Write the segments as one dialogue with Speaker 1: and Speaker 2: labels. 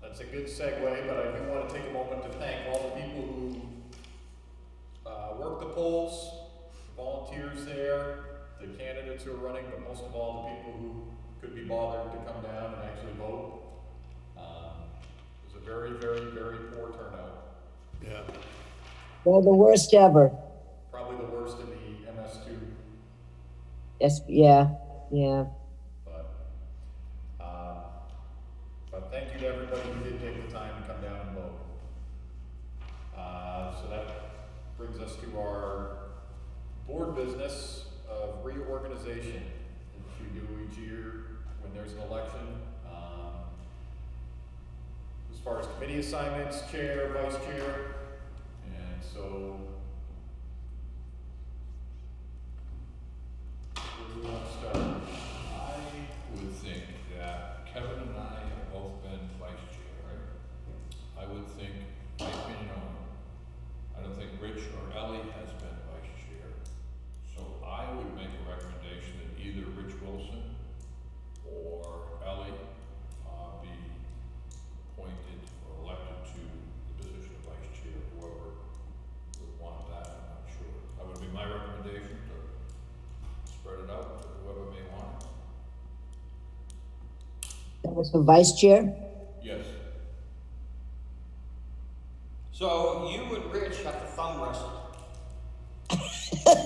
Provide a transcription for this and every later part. Speaker 1: That's a good segue, but I do want to take a moment to thank all the people who uh, work the polls, volunteers there, the candidates who are running, but most of all, the people who could be bothered to come down and actually vote. Um, It was a very, very, very poor turnout,
Speaker 2: Yeah,
Speaker 3: Well, the worst ever.
Speaker 1: probably the worst in the MS2,
Speaker 3: Yes, yeah, yeah.
Speaker 1: but, uh, but thank you to everybody who did take the time to come down and vote. Uh, so that brings us to our board business of reorganization, which we do each year when there's an election. Um, As far as committee assignments, chair, vice chair, and so. Where do we want to start?
Speaker 4: I would think that Kevin and I have both been vice chair, right? I would think, my opinion on, I don't think Rich or Ellie has been vice chair. So I would make a recommendation that either Rich Wilson or Ellie, uh, be appointed or elected to the position of vice chair, whoever would want that, I'm not sure. That would be my recommendation to spread it out to whoever may want it.
Speaker 3: That was the vice chair?
Speaker 4: Yes.
Speaker 5: So you and Rich have to thumb wrestle.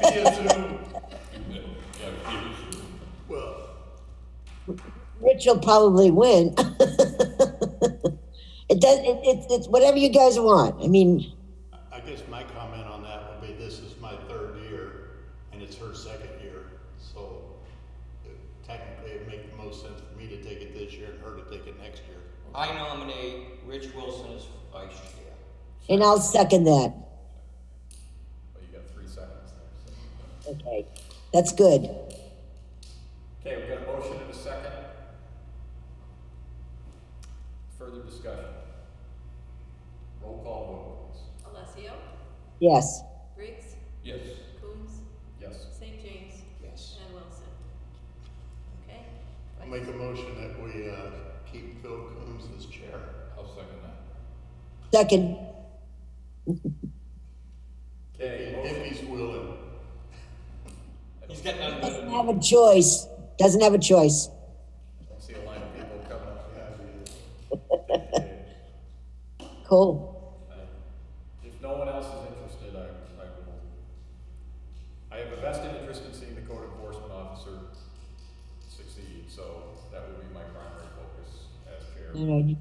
Speaker 1: Via Zoom.
Speaker 4: Yeah, yeah, it is.
Speaker 2: well,
Speaker 3: Rich will probably win. It does, it, it's, it's whatever you guys want. I mean,
Speaker 2: I guess my comment on that would be, this is my third year, and it's her second year, so it- technically it'd make the most sense for me to take it this year and her to take it next year.
Speaker 5: I nominate Rich Wilson as vice chair.
Speaker 3: and I'll second that.
Speaker 1: Well, you got three seconds there. so-
Speaker 3: Okay, that's good.
Speaker 1: Okay, we got a motion and a second. Further discussion. Roll call vote, please.
Speaker 6: Alessio,
Speaker 3: Yes.
Speaker 6: Briggs,
Speaker 4: Yes,
Speaker 6: Coombs,
Speaker 1: Yes.
Speaker 6: St. James,
Speaker 5: Yes.
Speaker 6: and Wilson. Okay?
Speaker 2: I'll make a motion that we, uh, keep Phil Coombs as chair.
Speaker 4: I'll second that.
Speaker 3: Second,
Speaker 1: Okay,
Speaker 2: If
Speaker 1: motion,
Speaker 2: he's willing.
Speaker 5: He's got none good.
Speaker 3: doesn't have a choice. Doesn't have a choice.
Speaker 1: I don't see a line of people coming up. Okay.
Speaker 3: Cool.
Speaker 1: I- If no one else is interested, I, I will. I have a vested interest in seeing the code enforcement officer succeed, so that would be my primary focus as chair.
Speaker 3: All right.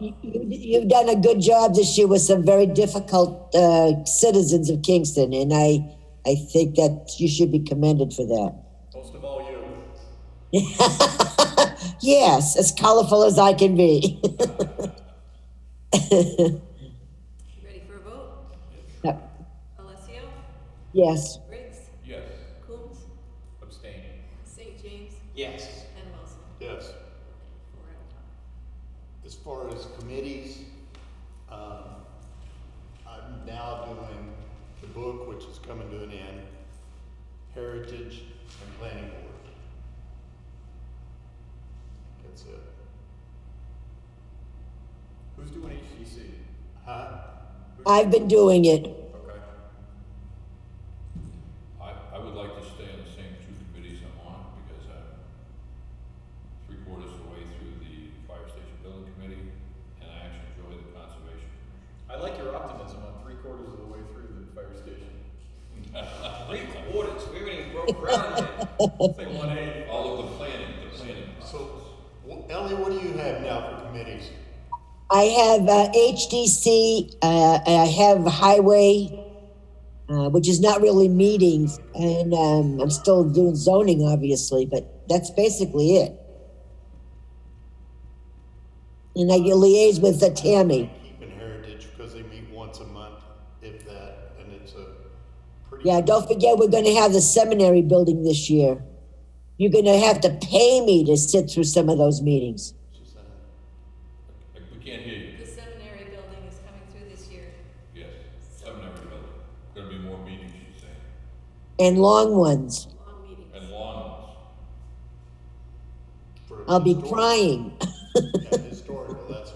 Speaker 3: You, you, you've done a good job this year with some very difficult uh, citizens of Kingston, and I, I think that you should be commended for that.
Speaker 1: Most of all, you.
Speaker 3: yes, as colorful as I can be.
Speaker 6: You Ready for a vote? Alessio,
Speaker 3: yes.
Speaker 6: Briggs,
Speaker 4: Yes,
Speaker 6: Coombs,
Speaker 1: Abstain.
Speaker 6: St. James,
Speaker 5: Yes.
Speaker 6: and Wilson.
Speaker 2: Yes.
Speaker 6: Four out of five.
Speaker 2: As far as committees, um, I'm now doing the book, which is coming to an end, Heritage and Planning Board. That's it.
Speaker 1: Who's doing HTC?
Speaker 2: Huh?
Speaker 3: I've been doing it.
Speaker 1: Okay.
Speaker 4: I, I would like to stay on the same two committees I'm on because I'm three quarters of the way through the fire station building committee and I actually enjoy the conservation.
Speaker 1: I like your optimism on three quarters of the way through the fire station.
Speaker 5: Three quarters. We haven't even broke ground yet.
Speaker 1: It's like one eighty.
Speaker 4: All of the planning, the planning process.
Speaker 2: So, wh- Ellie, what do you have now for committees?
Speaker 3: I have uh, HDC, uh, I have Highway, uh, which is not really meetings, and um, I'm still doing zoning, obviously, but that's basically it. And I liaise with the Tammy.
Speaker 2: Keeping Heritage, because they meet once a month, if that, and it's a pretty.
Speaker 3: Yeah, don't forget we're going to have the seminary building this year. You're going to have to pay me to sit through some of those meetings.
Speaker 2: Just, uh,
Speaker 4: Like, We can't hear you.
Speaker 6: The seminary building is coming through this year.
Speaker 4: Yes, I've never built. Gonna be more meetings, you say,
Speaker 3: and long ones.
Speaker 6: Long meetings.
Speaker 4: and long ones.
Speaker 2: for
Speaker 3: I'll be
Speaker 2: historic-
Speaker 3: crying.
Speaker 2: yeah, Historical, that's